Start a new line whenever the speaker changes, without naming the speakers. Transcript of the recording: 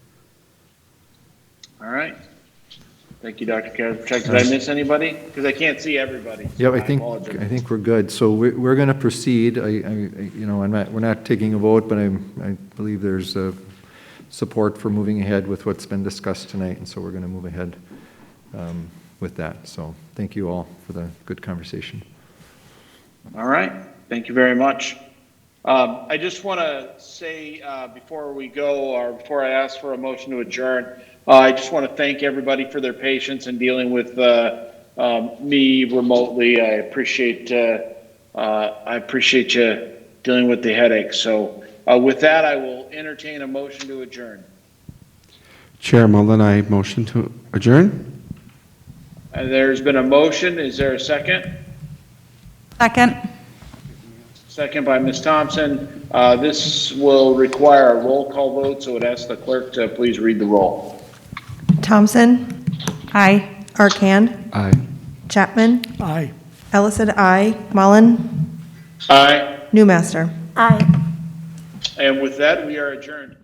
All right. Thank you, Dr. Kaczmarek. Did I miss anybody? Because I can't see everybody.
Yep, I think,
apologize.
I think we're good. So we- we're going to proceed. I, I- I- you know, I'm not, we're not taking a vote, but I'm, I believe there's uh, support for moving ahead with what's been discussed tonight, and so we're going to move ahead um, with that. So thank you all for the good conversation.
All right, thank you very much. Um, I just want to say uh, before we go, or before I ask for a motion to adjourn, uh, I just want to thank everybody for their patience in dealing with uh, um, me remotely. I appreciate uh, uh, I appreciate you dealing with the headache. So uh, with that, I will entertain a motion to adjourn.
Chair Mullen, I motion to adjourn.
Uh, there's been a motion. Is there a second?
Second.
Second by Ms. Thompson. Uh, This will require a roll call vote, so it asks the clerk to please read the roll.
Thompson,
Aye.
Arcand,
Aye.
Chapman,
Aye.
Ellison, I, Mullen,
Aye,
Newmaster.
Aye.
and with that, we are adjourned.